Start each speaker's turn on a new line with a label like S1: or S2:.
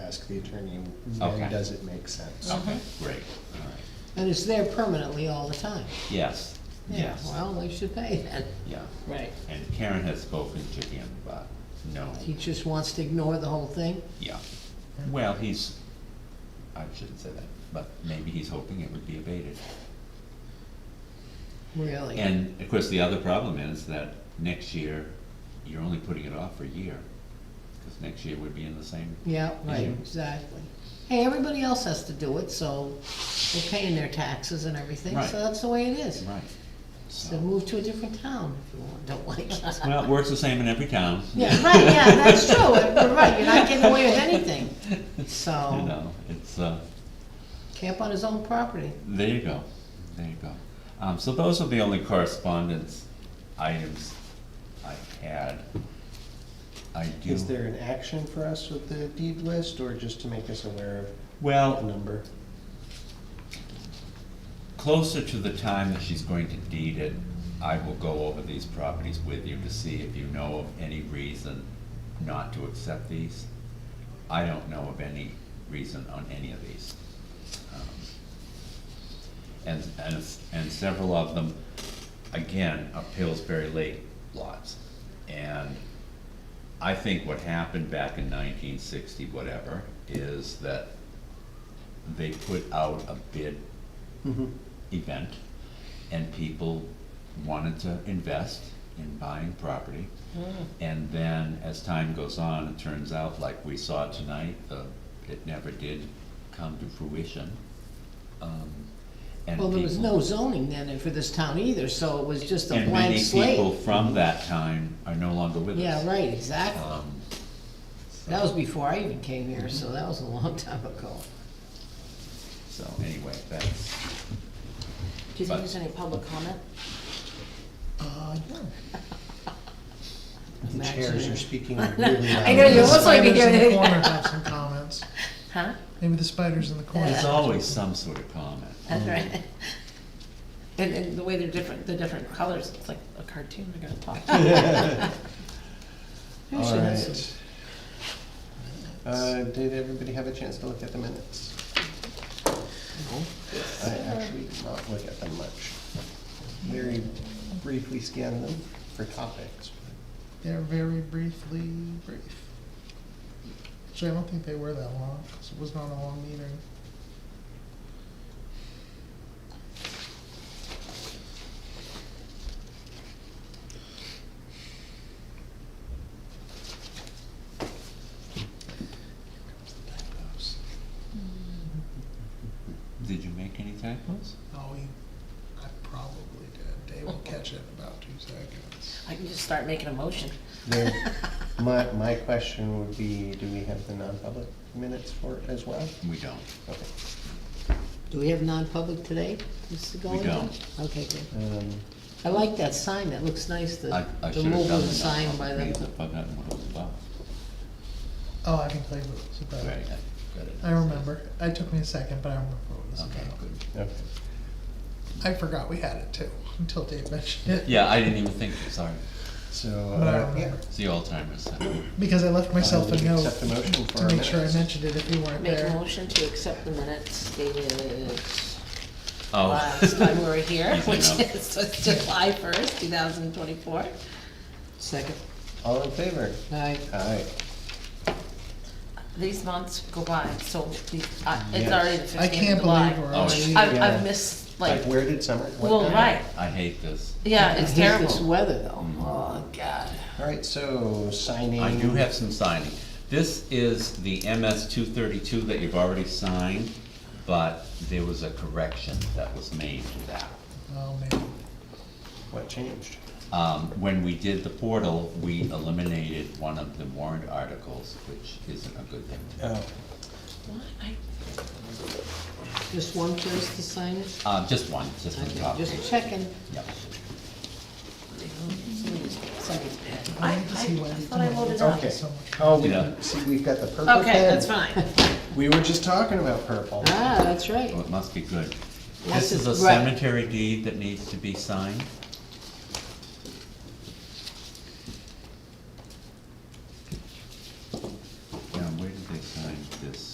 S1: the attorney,
S2: Okay. Oh.
S1: then does it make sense?
S2: Okay,
S3: Mm-hmm.
S2: great, all right.
S3: And it's there permanently all the time.
S2: Yes,
S3: Yeah,
S2: yes,
S3: well, they should pay then.
S2: yeah.
S3: Right.
S2: And Karen has spoken to him, but no,
S3: He just wants to ignore the whole thing?
S2: yeah. Well, he's, I shouldn't say that, but maybe he's hoping it would be abated.
S3: Really?
S2: And of course, the other problem is that next year, you're only putting it off for a year, because next year would be in the same.
S3: Yeah, right,
S2: Mhm.
S3: exactly. Hey, everybody else has to do it, so they're paying their taxes and everything,
S2: Right.
S3: so that's the way it is.
S2: Right.
S3: So move to a different town if you want- don't like it.
S2: Well, it works the same in every town.
S3: Yeah, right, yeah, that's true, you're right, you're not getting away with anything.
S2: You
S3: So,
S2: know, it's, uh,
S3: camp on his own property.
S2: there you go, there you go. Um, so those are the only correspondence items I had. I do.
S1: Is there an action for us with the deed list, or just to make us aware of the
S2: Well,
S1: number?
S2: closer to the time that she's going to deed it, I will go over these properties with you to see if you know of any reason not to accept these. I don't know of any reason on any of these. Um, And, and, s- and several of them, again, are Pillsbury Lake lots. And I think what happened back in nineteen sixty, whatever, is that they put out a bid
S3: Mm-hmm.
S2: event, and people wanted to invest in buying property.
S3: Mm.
S2: And then, as time goes on, it turns out, like we saw tonight, the, it never did come to fruition. Um, and
S3: Well, there was
S2: people-
S3: no zoning then for this town either, so it was just a
S2: And
S3: blank
S2: many
S3: slate.
S2: people from that time are no longer with us.
S3: Yeah, right, exactly.
S2: Um, so-
S3: That was before I even came here, so that was a long time ago.
S2: So, anyway, that's,
S4: Do you
S2: But-
S4: think there's any public comment?
S1: Uh, yeah. The
S3: Imagine
S1: chairs
S3: it.
S1: are speaking really loud.
S4: I know, you look like you're
S5: Spiders in the
S4: doing
S5: corner
S4: it.
S5: have some comments.
S4: Huh?
S5: Maybe the spiders in the corner.
S2: there's always some sort of comment.
S4: That's right. And, and the way they're different, the different colors, it's like a cartoon, they're gonna talk.
S1: All right. Uh, did everybody have a chance to look at the minutes? I actually did not look at them much. Very briefly scanned them for topics.
S5: They're very briefly brief. Actually, I don't think they were that long, because it was not a long meeting.
S2: Did you make any typos?
S5: No, we, Oh, I probably did. Dave will catch it in about two seconds.
S4: I can just start making a motion.
S1: There- My, my question would be, do we have the non-public minutes for it as well?
S2: We don't.
S1: Okay.
S3: Do we have non-public today? Mr. Golden?
S2: don't.
S3: Okay, good.
S1: Um,
S3: I like that sign, that looks nice, the,
S2: I, I
S3: the
S2: should have done
S3: mobile
S2: the
S3: sign by
S2: non-public reads,
S3: the,
S2: I've forgotten what it was about.
S5: Oh, I can play with it. It's about-
S2: Right, I got it.
S5: I remember. It took me a second, but I remember what it was
S2: Okay,
S5: about.
S2: good.
S1: okay.
S5: I forgot we had it too, until Dave mentioned it.
S2: Yeah, I didn't even think, sorry,
S1: So,
S5: But I
S1: uh, yeah.
S5: remember.
S2: it's the Alzheimer's.
S5: Because I left myself
S1: Uh,
S5: a
S1: we
S5: note
S1: accept the motion for
S5: to
S1: our
S5: make sure I
S1: minutes.
S5: mentioned it if you weren't
S4: Make a
S5: there.
S4: motion to accept the minutes dated last time we
S2: Oh.
S4: were here,
S2: Easy
S4: which
S2: enough.
S4: is July first, two thousand twenty-four.
S3: second.
S1: All in favor?
S3: Aye.
S1: Aye.
S4: These months go by, so the, uh, it's
S1: Yes.
S4: already the fifteenth
S5: I
S4: of
S5: can't
S4: July.
S5: believe we're
S2: Oh,
S5: already.
S4: I've,
S1: Yeah.
S4: I've missed, like,
S1: Like, where did summer? what
S4: well,
S1: time?
S4: right,
S2: I hate this.
S4: yeah,
S3: I
S4: it's
S3: hate
S4: terrible.
S3: this weather though,
S2: Mm-hmm.
S3: oh, God.
S1: All right, so signing.
S2: I do have some signing. This is the MS two thirty-two that you've already signed, but there was a correction that was made to that.
S5: Oh, man.
S1: What changed?
S2: Um, when we did the portal, we eliminated one of the warrant articles, which isn't a good thing.
S1: Oh,
S4: What? I-
S3: Just one place to sign it?
S2: Uh, just one, just on the
S3: Okay,
S2: top.
S3: just checking.
S2: Yep.
S4: somebody's- somebody's bad.
S2: Oh.
S5: I need to see
S4: I- I- I
S5: Wendy
S4: thought I
S5: tomorrow.
S4: loaded up.
S1: okay.
S5: so much.
S1: Oh, we,
S2: Yeah.
S1: see, we've got the purple pen.
S4: Okay, that's fine.
S1: We were just talking about purple.
S3: Ah, that's right.
S2: Oh, it must be good.
S3: Yes,
S2: This is a
S3: it's right.
S2: cemetery deed that needs to be signed.